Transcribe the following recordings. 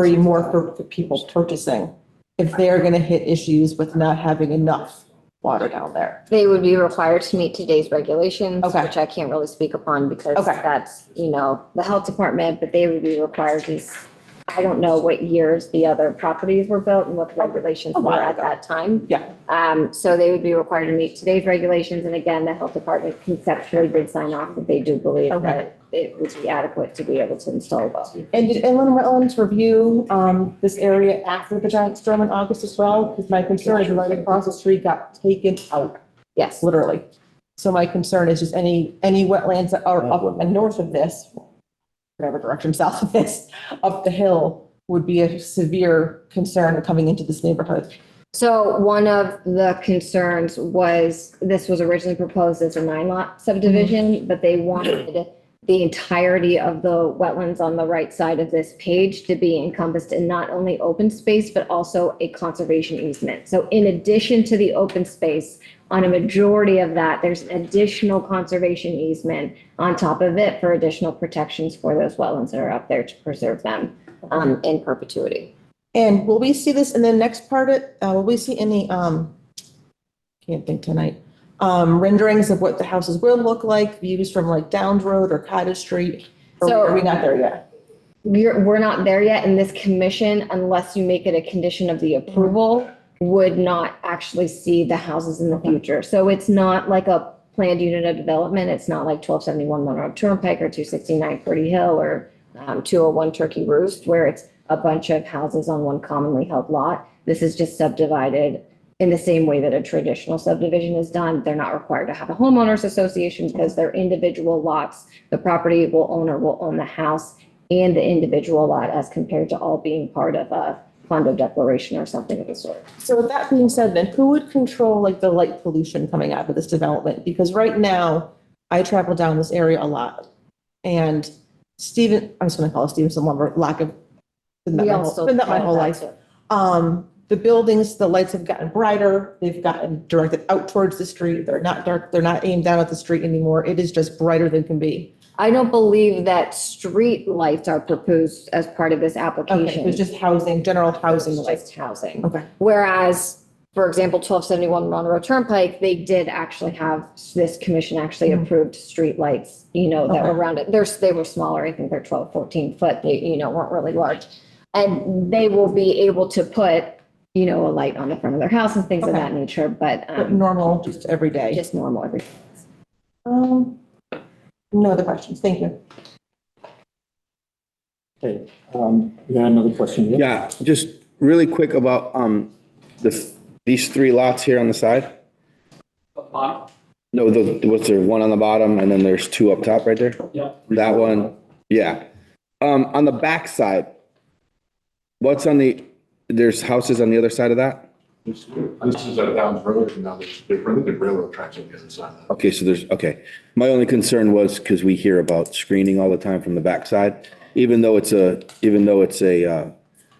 free more for the people purchasing if they're gonna hit issues with not having enough water down there. They would be required to meet today's regulations, Okay. which I can't really speak upon because Okay. that's, you know, the health department, but they would be required to, s- I don't know what years the other properties were built and what the regulations A while were at ago. that time. Yeah. Um, so they would be required to meet today's regulations. And again, the health department conceptually did sign off that they do believe Okay. that it would be adequate to be able to install those. And did inland wetlands review, um, this area after the giant storm in August as well? Because my concern is right across the street got taken out, Yes. literally. So my concern is just any, any wetlands that are up and north of this, whatever direction, south of this, up the hill would be a severe concern coming into this neighborhood. So one of the concerns was, this was originally proposed as a nine lot subdivision, but they wanted the entirety of the wetlands on the right side of this page to be encompassed in not only open space, but also a conservation easement. So in addition to the open space, on a majority of that, there's an additional conservation easement on top of it for additional protections for those wetlands that are up there to preserve them, um, in perpetuity. And will we see this in the next part, of- uh, will we see any, um, can't think tonight, um, renderings of what the houses will look like, views from like Downs Road or Cottage Street? Or So- are we not there yet? We're, we're not there yet, and this commission, unless you make it a condition of the approval, would not actually see the houses in the future. So it's not like a planned unit of development. It's not like twelve seventy-one Monroe Turnpike or two sixty-nine Purdy Hill or um, two oh one Turkey Roost, where it's a bunch of houses on one commonly held lot. This is just subdivided in the same way that a traditional subdivision is done. They're not required to have a homeowners association because they're individual lots. The property will owner will own the house and the individual lot as compared to all being part of a condo declaration or something of the sort. So with that being said, then who would control like the light pollution coming out of this development? Because right now, I travel down this area a lot. And Stephen, I'm just gonna call it Stevenson lumber, lack of, been that We my all whole, still been that my whole call it life. that, too. Um, the buildings, the lights have gotten brighter, they've gotten directed out towards the street, they're not dark, they're not aimed down at the street anymore, it is just brighter than can be. I don't believe that street lights are proposed as part of this Okay, application. it's just housing, general housing It's lights. just housing. Okay, Whereas, for example, twelve seventy-one Monroe Turnpike, they did actually have, this commission actually Mhm. approved streetlights, you know, that were Okay. around it. They're, they were smaller, I think they're 12, 14 foot, they, you know, weren't really large. And they will be able to put, you know, a light on the front of their house and things of Okay. that nature, but, but um, normal, just every day. just normal every. Um, no other questions, thank you. Okay, um, you had another question? Yeah, just really quick about, um, the, these three lots here on the side. Bottom, No, the, what's there, one on the bottom and then there's two up top right there? yeah. That one, yeah. Um, on the back side, what's on the, there's houses on the other side of that? This this is a Downs Road, and now there's, they're running the railroad tracks on the other side of that. Okay, so there's, okay. My only concern was because we hear about screening all the time from the backside, even though it's a, even though it's a, uh,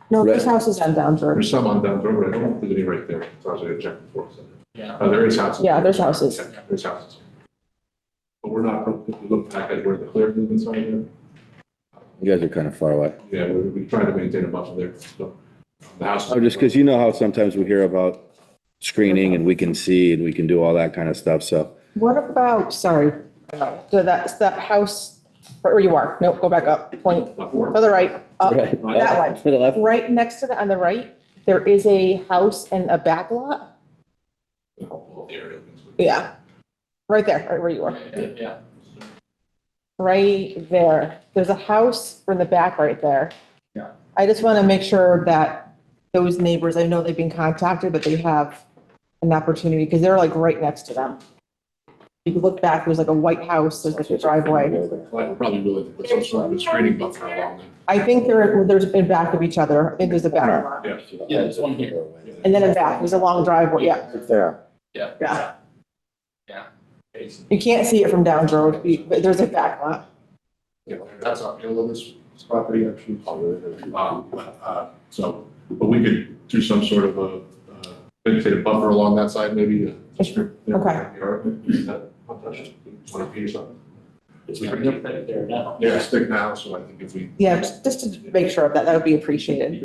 No, there's Right. houses on Downs Road. There's some on Downs Road, but I don't think there's any right there, so I was gonna check before. Yeah. Uh, there is houses. Yeah, there's houses. Yeah, There's houses. But we're not, if you look back at where the clear movements are there, you guys are kind of far away. yeah, we, we try to maintain a buffer there, so. The house. Oh, just because you know how sometimes we hear about screening and we can see and we can do all that kind of stuff, so. What about, sorry, so that's that house, where you are, nope, go back up, point, Before. to the right, up, Right. that one. To the left? Right next to the, on the right, there is a house and a back lot. The area. Yeah. Right there, right where you are, Yeah. right there. There's a house in the back right there. Yeah. I just want to make sure that those neighbors, I know they've been contacted, but they have an opportunity because they're like right next to them. You can look back, there's like a white house, there's like a driveway. Like, we're probably willing to put some sort of a screening buffer along there. I think there, there's in back of each other. I think there's a back lot. Yeah, there's one here. And then a back, there's a long driveway, yeah, There. Yeah. yeah. Jason. You can't see it from Downs Road, but there's a back lot. Yeah, that's our, you know, this this property actually. Um, but, uh, so, but we could do some sort of a, uh, vegetative buffer along that side, maybe. Okay. One feet or something. It's pretty thick there now. Yeah, it's thick now, so I think if we Yeah, just just to make sure of that, that would be appreciated.